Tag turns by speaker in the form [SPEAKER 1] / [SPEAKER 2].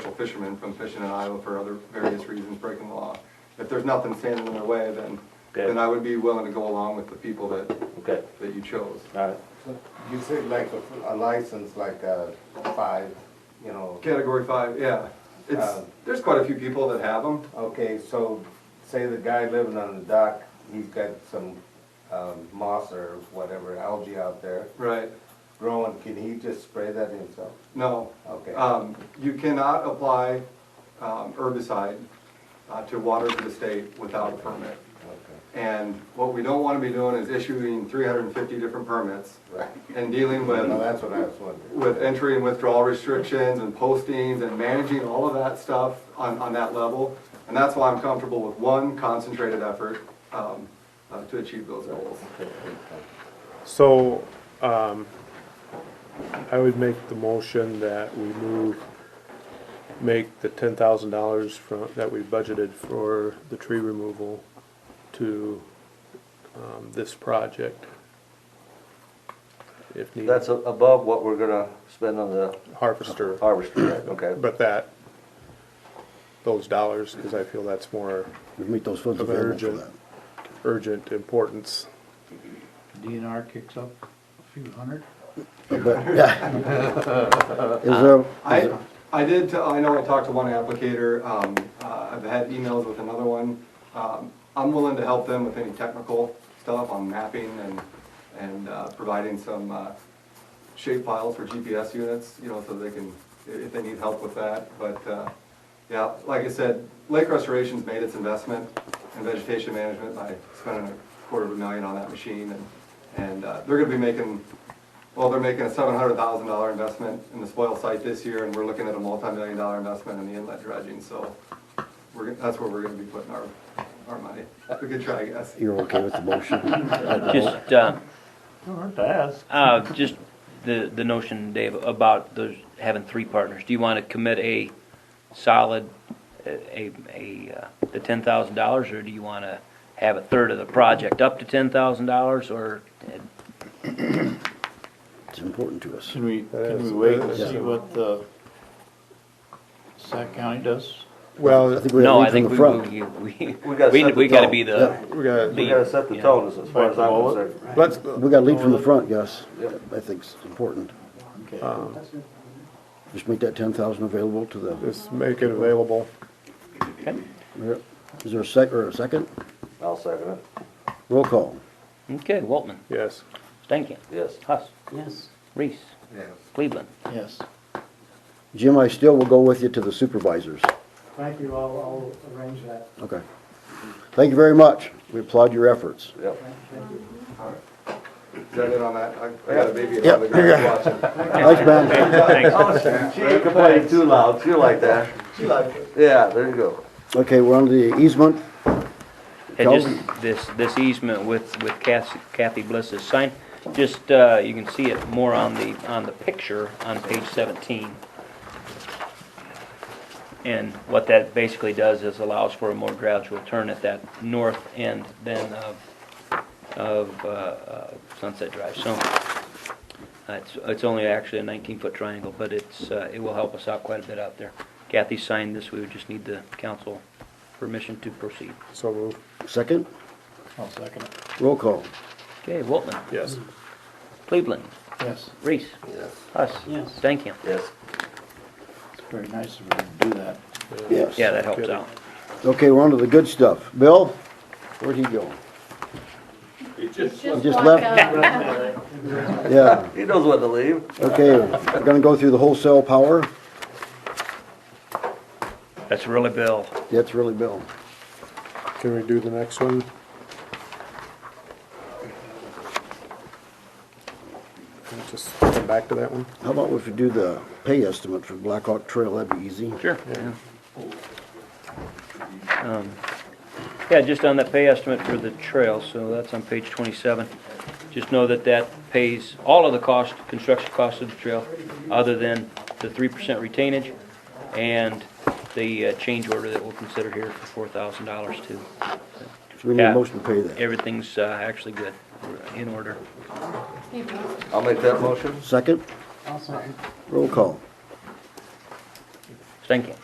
[SPEAKER 1] fishermen from fishing in Iowa for other various reasons, breaking the law. If there's nothing standing in their way, then,
[SPEAKER 2] Okay.
[SPEAKER 1] then I would be willing to go along with the people that,
[SPEAKER 2] Okay,
[SPEAKER 1] that you chose.
[SPEAKER 2] all right.
[SPEAKER 3] So You said like a, a license, like a five, you know,
[SPEAKER 1] Category five, yeah. It's,
[SPEAKER 3] Um,
[SPEAKER 1] there's quite a few people that have them.
[SPEAKER 3] okay, so say the guy living on the dock, he's got some, um, moss or whatever algae out there
[SPEAKER 1] Right,
[SPEAKER 3] growing, can he just spray that himself?
[SPEAKER 1] no.
[SPEAKER 3] Okay.
[SPEAKER 2] Uh,
[SPEAKER 1] Um, You cannot apply um, herbicide uh, to waters of the state without a permit.
[SPEAKER 3] Okay,
[SPEAKER 1] And what we don't want to be doing is issuing 350 different permits
[SPEAKER 3] right.
[SPEAKER 1] and dealing
[SPEAKER 3] Well,
[SPEAKER 1] with,
[SPEAKER 3] that's what I was wondering.
[SPEAKER 1] with entry and withdrawal restrictions and postings and managing all of that stuff on, on that level. And that's why I'm comfortable with one concentrated effort um, uh, to achieve those goals.
[SPEAKER 4] So, um, I would make the motion that we move, make the ten thousand dollars from, that we budgeted for the tree removal to, um, this project. If
[SPEAKER 2] That's
[SPEAKER 4] needed,
[SPEAKER 2] a- above what we're gonna spend on the
[SPEAKER 4] harvester,
[SPEAKER 2] harvester, right? okay?
[SPEAKER 4] but that, those dollars, cause I feel that's more
[SPEAKER 5] Make those funds
[SPEAKER 4] of an
[SPEAKER 5] available for
[SPEAKER 4] urgent,
[SPEAKER 5] that.
[SPEAKER 4] urgent importance.
[SPEAKER 6] DNR kicks up a few hundred.
[SPEAKER 5] But, yeah. Is there, is
[SPEAKER 1] I,
[SPEAKER 5] there-
[SPEAKER 1] I did, t- I know I talked to one applicator, um, uh, I've had emails with another one. Um, I'm willing to help them with any technical stuff on mapping and, and, uh, providing some, uh, shape files for GPS units, you know, so they can, i- if they need help with that, but, uh, yeah, like I said, Lake Restoration's made its investment in vegetation management by spending a quarter of a million on that machine, and, and, uh, they're gonna be making well, they're making a seven hundred thousand dollar investment in the spoil site this year, and we're looking at a multi-million dollar investment in the inlet dredging, so we're, gonna- that's where we're gonna be putting our, our money. We could try, I guess.
[SPEAKER 5] you're okay with the motion?
[SPEAKER 7] Just, uh,
[SPEAKER 6] Don't hurt to ask.
[SPEAKER 7] uh, just the, the notion, Dave, about those, having three partners. Do you want to commit a solid, a, a, a, uh, the ten thousand dollars, or do you want to have a third of the project up to ten thousand dollars, or? uh,
[SPEAKER 5] It's important to us.
[SPEAKER 6] Can we, can we
[SPEAKER 4] is-
[SPEAKER 6] wait
[SPEAKER 4] that
[SPEAKER 6] and
[SPEAKER 4] is
[SPEAKER 6] see
[SPEAKER 4] a-
[SPEAKER 6] what the Sac County does?
[SPEAKER 5] I
[SPEAKER 4] Well,
[SPEAKER 5] think we
[SPEAKER 7] No,
[SPEAKER 5] gotta
[SPEAKER 7] I
[SPEAKER 5] lead from
[SPEAKER 7] think
[SPEAKER 5] the
[SPEAKER 7] we, uh,
[SPEAKER 5] front.
[SPEAKER 7] we, we,
[SPEAKER 2] We gotta
[SPEAKER 7] we,
[SPEAKER 2] set the
[SPEAKER 7] we gotta
[SPEAKER 2] tone.
[SPEAKER 7] be the,
[SPEAKER 4] we gotta,
[SPEAKER 2] We gotta set the tone as as far as I'm concerned.
[SPEAKER 4] let's,
[SPEAKER 5] We gotta lead from the front, Gus. I think it's important.
[SPEAKER 4] Uh.
[SPEAKER 6] Okay.
[SPEAKER 5] Just make that ten thousand available to the,
[SPEAKER 4] just make it available.
[SPEAKER 5] Yep. is there a sec, or a second?
[SPEAKER 2] I'll second it,
[SPEAKER 5] Roll call.
[SPEAKER 7] okay, Waltman,
[SPEAKER 4] Yes.
[SPEAKER 7] Stankin,
[SPEAKER 2] yes.
[SPEAKER 7] Huss,
[SPEAKER 6] Yes.
[SPEAKER 7] Reese,
[SPEAKER 3] Yes.
[SPEAKER 7] Cleveland.
[SPEAKER 6] Yes.
[SPEAKER 5] Jim, I still will go with you to the supervisors.
[SPEAKER 8] Thank you, I'll, I'll arrange that.
[SPEAKER 5] Okay. Thank you very much. We applaud your efforts.
[SPEAKER 2] Yep.
[SPEAKER 1] Is that it on that? I- I got a baby
[SPEAKER 5] Yeah.
[SPEAKER 1] on the ground watching.
[SPEAKER 5] Thanks, man.
[SPEAKER 7] Thanks.
[SPEAKER 2] She ain't complaining too loud, she like that. She like it. Yeah, there you go.
[SPEAKER 5] Okay, we're on to the easement.
[SPEAKER 7] And just this, this easement with, with Kathy Kathy Bliss's sign, just, uh, you can see it more on the, on the picture on page seventeen. And what that basically does is allows for a more gradual turn at that north end then of, of, uh, uh, Sunset Drive, so. uh, It's, it's only actually a nineteen-foot triangle, but it's, uh, it will help us out quite a bit out there. Kathy signed this, we would just need the council permission to proceed.
[SPEAKER 4] So move.
[SPEAKER 5] Second,
[SPEAKER 6] I'll second it.
[SPEAKER 5] roll call.
[SPEAKER 7] Okay, Waltman,
[SPEAKER 4] Yes.
[SPEAKER 7] Cleveland,
[SPEAKER 6] Yes.
[SPEAKER 7] Reese,
[SPEAKER 2] Yes.
[SPEAKER 7] Huss,
[SPEAKER 6] Yes.
[SPEAKER 7] Stankham.
[SPEAKER 2] Yes.
[SPEAKER 6] It's very nice of her to do that.
[SPEAKER 5] Yes.
[SPEAKER 7] Yeah, that helps out.
[SPEAKER 5] Okay, we're on to the good stuff. Bill, where'd he go?
[SPEAKER 9] Just
[SPEAKER 5] Just
[SPEAKER 9] walk
[SPEAKER 5] left?
[SPEAKER 9] out.
[SPEAKER 5] Yeah,
[SPEAKER 2] He knows when to leave.
[SPEAKER 5] okay, we're gonna go through the wholesale power.
[SPEAKER 7] That's really Bill.
[SPEAKER 5] That's really Bill.
[SPEAKER 4] Can we do the next one? Just come back to that one?
[SPEAKER 5] How about if we do the pay estimate for Black Hawk Trail? That'd be easy.
[SPEAKER 7] Sure. Um, Yeah, just on that pay estimate for the trail, so that's on page 27. Just know that that pays all of the cost, construction costs of the trail, other than the 3% retainage and the uh, change order that we'll consider here for $4,000 too.
[SPEAKER 5] So we need a
[SPEAKER 7] Yeah.
[SPEAKER 5] motion to pay that.
[SPEAKER 7] Everything's uh, actually good, We're in order.
[SPEAKER 2] I'll make that motion.
[SPEAKER 5] Second,
[SPEAKER 6] I'll second.
[SPEAKER 5] roll call.
[SPEAKER 7] Stankham.